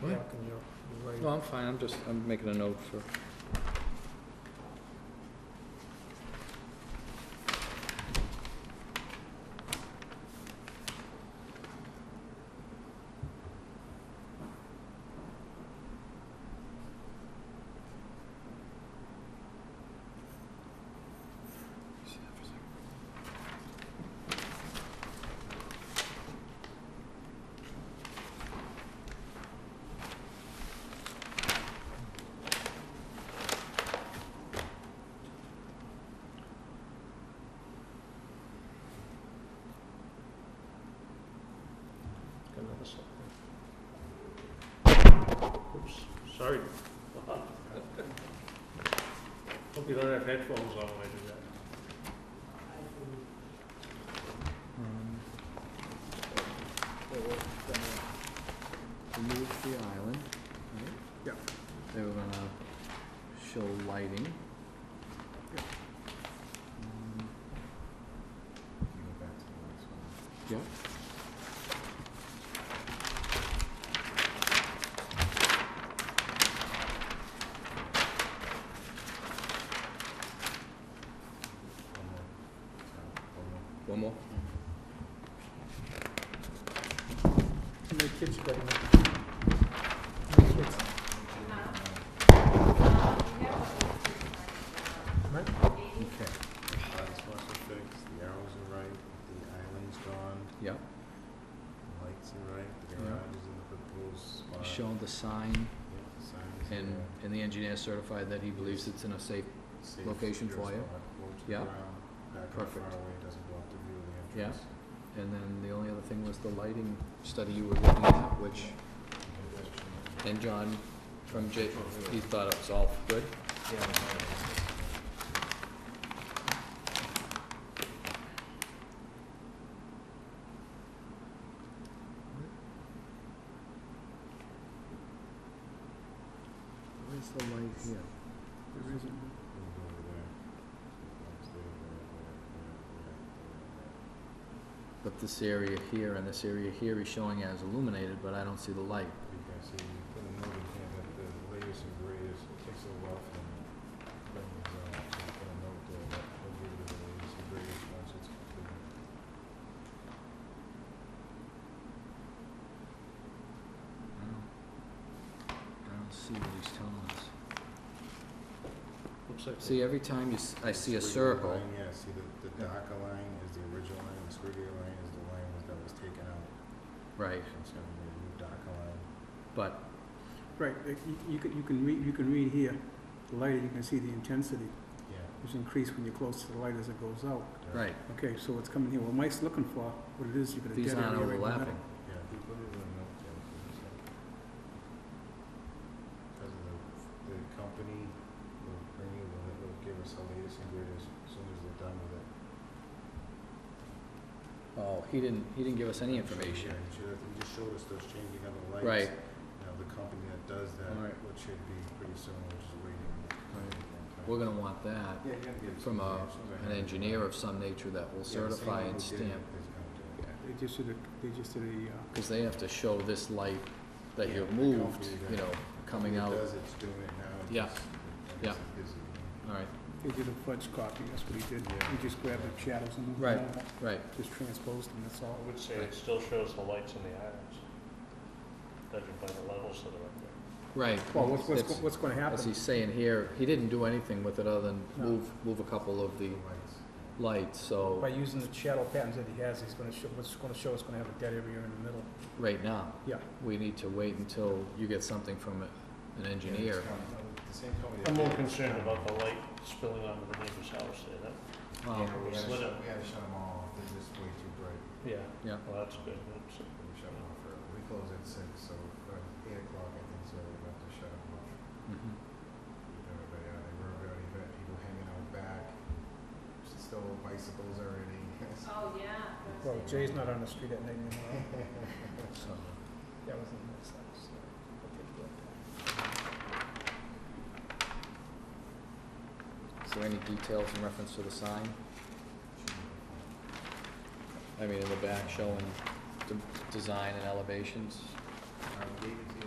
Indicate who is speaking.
Speaker 1: What?
Speaker 2: Yeah, can you- you're right.
Speaker 1: No, I'm fine, I'm just, I'm making a note for,
Speaker 2: Got another slip there. Oops, sorry. Hope you don't have headphones on when you do that.
Speaker 1: um,
Speaker 3: They were gonna remove the island, right?
Speaker 2: Yeah.
Speaker 3: They were gonna show lighting.
Speaker 2: Yeah.
Speaker 3: Um,
Speaker 4: Go back to the last one.
Speaker 3: Yep.
Speaker 4: One more. Sorry, one more.
Speaker 1: one more.
Speaker 2: Too many kids playing.
Speaker 3: Okay,
Speaker 4: Lights must be fixed, the arrows are right, the island's gone,
Speaker 3: yep,
Speaker 4: the lights are right, the
Speaker 3: Yeah.
Speaker 4: garage is in the proposed spot.
Speaker 3: show the sign
Speaker 4: Yep, the sign is
Speaker 3: and,
Speaker 4: there.
Speaker 3: and the engineer certified that he believes it's in a safe,
Speaker 4: Safe,
Speaker 3: location
Speaker 4: secure
Speaker 3: for you.
Speaker 4: spot, low to the
Speaker 3: Yeah.
Speaker 4: ground, back up
Speaker 3: Perfect.
Speaker 4: far away, doesn't block the view of the
Speaker 3: Yeah.
Speaker 4: entrance.
Speaker 3: and then the only other thing was the lighting study you were looking at, which,
Speaker 4: And that's what you need.
Speaker 1: And John from J, he thought it was all good.
Speaker 4: Oh, Yeah, the lighting is-
Speaker 3: where's the light here?
Speaker 2: There isn't.
Speaker 4: We'll go over there. Lights there, there, there, there, there, there, there.
Speaker 3: But this area here and this area here he's showing as illuminated, but I don't see the light.
Speaker 4: You can see, you put a note in here that the latest and greatest, it takes a while for them to bring these out, so uh, you put a note there that will give you the latest and greatest once it's completed.
Speaker 3: I don't, I don't see what he's telling us.
Speaker 2: Looks like.
Speaker 3: See, every time you, s- I see a
Speaker 4: Squiggly
Speaker 3: circle,
Speaker 4: line, Yeah, see the, the
Speaker 3: Yeah.
Speaker 4: darker line is the original line, the squiggly line is the line that was taken out,
Speaker 3: right,
Speaker 4: so it's gonna be a new darker line.
Speaker 3: but,
Speaker 5: Right, uh, you- you can, you can read, you can read here, the lighting, you can see the intensity,
Speaker 4: Yeah.
Speaker 5: which increased when you're close to the light as it goes out.
Speaker 4: dark-
Speaker 3: right,
Speaker 5: Okay, so what's coming here, what Mike's looking for, what it is, you're gonna
Speaker 3: these
Speaker 5: get
Speaker 3: aren't
Speaker 5: area right
Speaker 3: overlapping.
Speaker 4: Yeah, if you put it in a note there, it's just like. Cause of the, the company will bring you, will, will give us the latest and greatest as soon as they're done with it.
Speaker 3: Oh, he didn't, he didn't give us any information.
Speaker 4: Yeah, you should have, you just showed us those changing of the lights.
Speaker 3: Right.
Speaker 4: Now, the company that does that,
Speaker 3: All right.
Speaker 4: which should be pretty soon, which is waiting.
Speaker 3: Right. We're gonna want that
Speaker 4: Yeah, you gotta get.
Speaker 3: from a, an engineer of some nature that will certify and stamp,
Speaker 5: now. They just did a, they just did a, uh,
Speaker 3: because they have to show this light that
Speaker 4: Yeah,
Speaker 3: you
Speaker 4: the
Speaker 3: moved,
Speaker 4: company that-
Speaker 3: you know, coming out.
Speaker 4: Does it's doing it now. it's
Speaker 3: Yeah.
Speaker 4: just- it's
Speaker 3: Yeah.
Speaker 4: busy, you
Speaker 3: All right,
Speaker 5: they did a fudge copy, that's what he did,
Speaker 4: Yeah.
Speaker 5: he just grabbed the shadows and. moved
Speaker 3: Right.
Speaker 5: them,
Speaker 3: right,
Speaker 5: Just transposed them, that's
Speaker 2: I
Speaker 5: all.
Speaker 2: would say it still shows the lights in the islands, judging by the levels that are up there.
Speaker 3: right.
Speaker 5: Well, what's, what's,
Speaker 3: That's-
Speaker 5: go- what's gonna
Speaker 3: As
Speaker 5: happen,
Speaker 3: he's saying here, he didn't do anything with it other than
Speaker 5: No.
Speaker 3: move, move a couple of the
Speaker 4: know, the lights.
Speaker 3: lights, so,
Speaker 5: by using the shadow patterns that he has, he's gonna show, what's gonna show is gonna have a dead area in the middle.
Speaker 3: right now.
Speaker 5: Yeah.
Speaker 3: We need to wait until you get something from a- an
Speaker 4: Yeah, it's
Speaker 3: engineer.
Speaker 4: kind of- The same company. that
Speaker 2: I'm more
Speaker 4: did it, it's
Speaker 2: concerned
Speaker 4: kind of-
Speaker 2: about the light spilling onto the neighbor's house there, that,
Speaker 3: Well,
Speaker 4: Yeah, we
Speaker 2: it's
Speaker 4: had to
Speaker 2: lit
Speaker 4: shut,
Speaker 2: up.
Speaker 4: we had to shut them all off, they're just way too bright.
Speaker 2: yeah.
Speaker 3: Yeah.
Speaker 2: Well, that's good, that's,
Speaker 4: We shut them off early. We close at six, so by eight o'clock, I think, so we have to shut them off.
Speaker 3: mhm.
Speaker 4: Get Everybody out, they were already, we had people hanging out back, stole bicycles already.
Speaker 6: Oh, yeah.
Speaker 5: Well, Jay's not on the street at night anymore,
Speaker 3: So,
Speaker 5: that was in the next house, so. I'll take that.
Speaker 3: is there any details in reference to the sign? I mean, in the back showing the design and elevations?
Speaker 4: Um, David's here.